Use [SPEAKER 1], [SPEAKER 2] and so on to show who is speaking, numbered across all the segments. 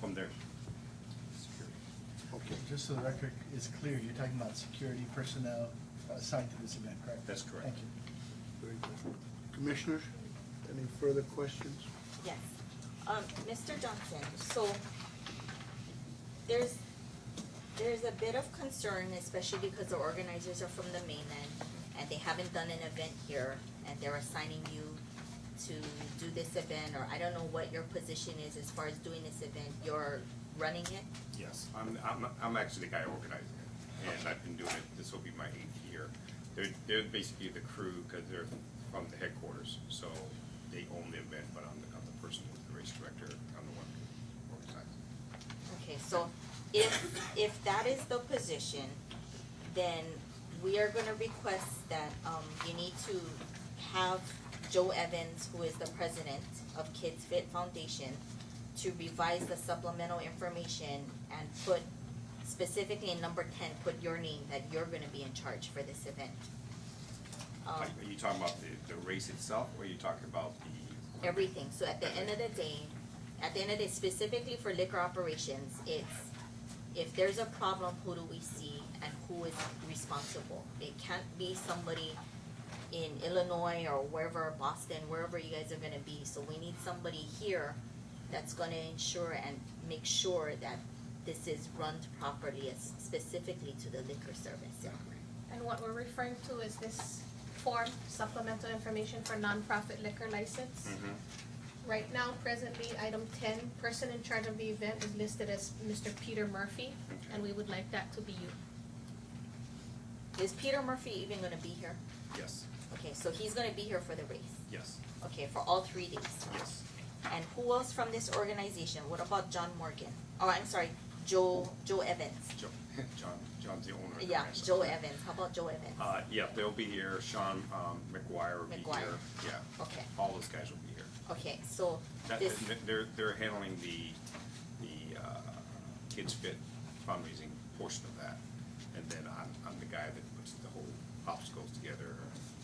[SPEAKER 1] from there.
[SPEAKER 2] Okay, just so the record is clear, you're talking about security personnel assigned to this event, correct?
[SPEAKER 1] That's correct.
[SPEAKER 2] Thank you.
[SPEAKER 3] Very good. Commissioners, any further questions?
[SPEAKER 4] Yes. Um, Mr. Johnson, so there's, there's a bit of concern, especially because the organizers are from the mainland and they haven't done an event here and they're assigning you to do this event, or I don't know what your position is as far as doing this event, you're running it?
[SPEAKER 1] Yes, I'm, I'm, I'm actually the guy organizing it, and I've been doing it, this will be my eighth year. They're, they're basically the crew, because they're from the headquarters, so they own the event, but I'm the, I'm the person, the race director, I'm the one who organizes.
[SPEAKER 4] Okay, so if, if that is the position, then we are gonna request that, um, you need to have Joe Evans, who is the president of Kids Fit Foundation, to revise the supplemental information and put specifically in number ten, put your name, that you're gonna be in charge for this event.
[SPEAKER 5] Uh,
[SPEAKER 4] Um,
[SPEAKER 1] Like, Are you talking about the, the race itself, or are you talking about the?
[SPEAKER 4] everything, so at the end of the day, at the end of the day, specifically for liquor operations, it's, if there's a problem, who do we see and who is responsible? It can't be somebody in Illinois or wherever, Boston, wherever you guys are gonna be, so we need somebody here that's gonna ensure and make sure that this is run properly, as- specifically to the liquor service.
[SPEAKER 5] And what we're referring to is this form supplemental information for nonprofit liquor license.
[SPEAKER 1] Mhm.
[SPEAKER 5] Right now, presently, item ten, person in charge of the event is listed as Mr. Peter Murphy, and we would like that to be you.
[SPEAKER 4] Is Peter Murphy even gonna be here?
[SPEAKER 1] Yes,
[SPEAKER 4] Okay, so he's gonna be here for the race,
[SPEAKER 1] yes,
[SPEAKER 4] okay, for all three days?
[SPEAKER 1] yes.
[SPEAKER 4] And who else from this organization? What about John Morgan? Oh, I'm sorry, Joe, Joe Evans.
[SPEAKER 1] Joe, John, John's the owner. of the
[SPEAKER 4] Yeah,
[SPEAKER 1] race.
[SPEAKER 4] Joe Evans. How about Joe Evans?
[SPEAKER 1] Uh, yeah, they'll be here, Sean, um, McGuire will be here,
[SPEAKER 4] McGuire.
[SPEAKER 1] yeah,
[SPEAKER 4] Okay,
[SPEAKER 1] all those guys will be here.
[SPEAKER 4] okay, so
[SPEAKER 1] That,
[SPEAKER 4] this,
[SPEAKER 1] they're, they're handling the, the, uh, Kids Fit fundraising portion of that. And then I'm, I'm the guy that puts the whole obstacles together,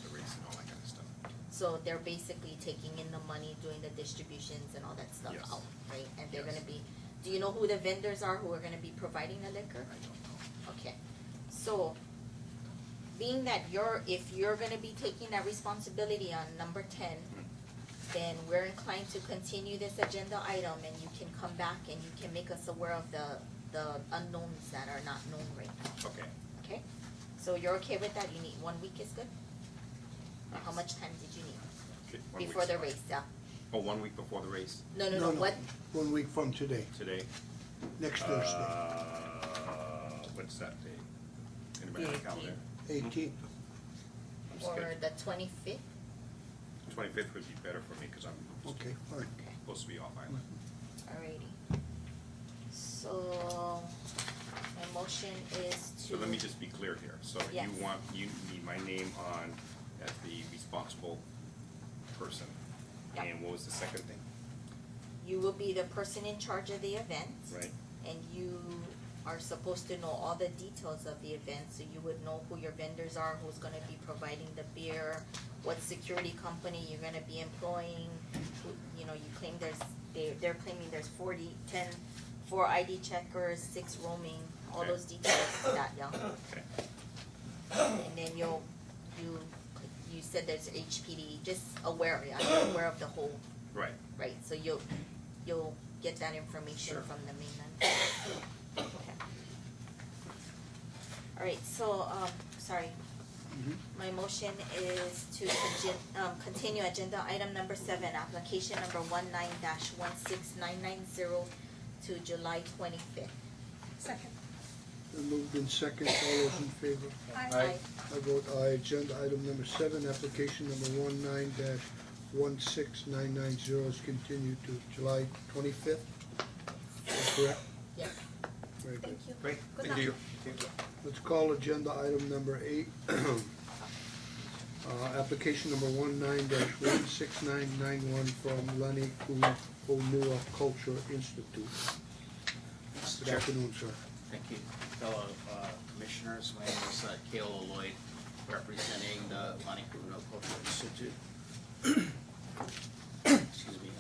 [SPEAKER 1] the race and all that kind of stuff.
[SPEAKER 4] so they're basically taking in the money, doing the distributions and all that stuff
[SPEAKER 1] Yes.
[SPEAKER 4] out, right? And they're
[SPEAKER 1] Yes.
[SPEAKER 4] gonna be, do you know who the vendors are who are gonna be providing the
[SPEAKER 1] I
[SPEAKER 4] liquor?
[SPEAKER 1] don't know.
[SPEAKER 4] Okay, so being that you're, if you're gonna be taking that responsibility on number ten, then we're inclined to continue this agenda item and you can come back and you can make us aware of the, the unknowns that are not known right now,
[SPEAKER 1] Okay,
[SPEAKER 4] okay? So you're okay with that? You need, one week is good? Or How much time did you need
[SPEAKER 1] okay. one
[SPEAKER 4] before
[SPEAKER 1] week's
[SPEAKER 4] the
[SPEAKER 1] fine.
[SPEAKER 4] race, yeah?
[SPEAKER 1] Oh, one week before the race,
[SPEAKER 4] No, no, no, what,
[SPEAKER 3] One week from today,
[SPEAKER 1] today?
[SPEAKER 3] next Thursday,
[SPEAKER 1] Uh, what's that day? Anybody have a
[SPEAKER 4] The
[SPEAKER 1] calendar?
[SPEAKER 3] eighteenth.
[SPEAKER 1] I'm
[SPEAKER 4] or
[SPEAKER 1] scared.
[SPEAKER 4] the twenty-fifth?
[SPEAKER 1] Twenty-fifth would be better for me, cause I'm
[SPEAKER 3] Okay, all right.
[SPEAKER 1] supposed to be off island.
[SPEAKER 4] Alrighty. So, my motion is to.
[SPEAKER 1] So let me just be clear here. So
[SPEAKER 4] Yes.
[SPEAKER 1] you want, you need my name on as the responsible person.
[SPEAKER 4] Yeah.
[SPEAKER 1] And what was the second thing,
[SPEAKER 4] You will be the person in charge of the event.
[SPEAKER 1] right?
[SPEAKER 4] And you are supposed to know all the details of the event, so you would know who your vendors are, who's gonna be providing the beer, what security company you're gonna be employing, who, you know, you claim there's, they, they're claiming there's forty, ten, four ID checkers, six roaming, all
[SPEAKER 1] Okay.
[SPEAKER 4] those details, that, yeah.
[SPEAKER 1] Okay.
[SPEAKER 4] And then you'll, you, you said there's HPD, just aware, yeah, you're aware of the whole
[SPEAKER 1] Right,
[SPEAKER 4] Right, so you'll, you'll get that information
[SPEAKER 1] Sure.
[SPEAKER 4] from the mainland. Okay. All right, so, um, sorry,
[SPEAKER 3] Mhm.
[SPEAKER 4] my motion is to congen- um, continue agenda item number seven, application number one nine dash one six nine nine zero to July twenty-fifth.
[SPEAKER 5] Second.
[SPEAKER 3] Then moved in second, all those in favor? I vote aye. Agenda item number seven, application number one nine dash one six nine nine zero is continued to July twenty-fifth. Correct?
[SPEAKER 4] Yes.
[SPEAKER 3] Very good.
[SPEAKER 5] Thank you.
[SPEAKER 1] great,
[SPEAKER 5] Good
[SPEAKER 1] thank you.
[SPEAKER 5] luck.
[SPEAKER 3] Let's call agenda item number eight. Uh, application number one nine dash one six nine nine one from Lenny Kuhonua Culture Institute. Good afternoon, sir.
[SPEAKER 6] Thank you, fellow uh, commissioners. My name is uh, Cale Lloyd, representing the Monte Bruno Cultural Institute. Excuse me.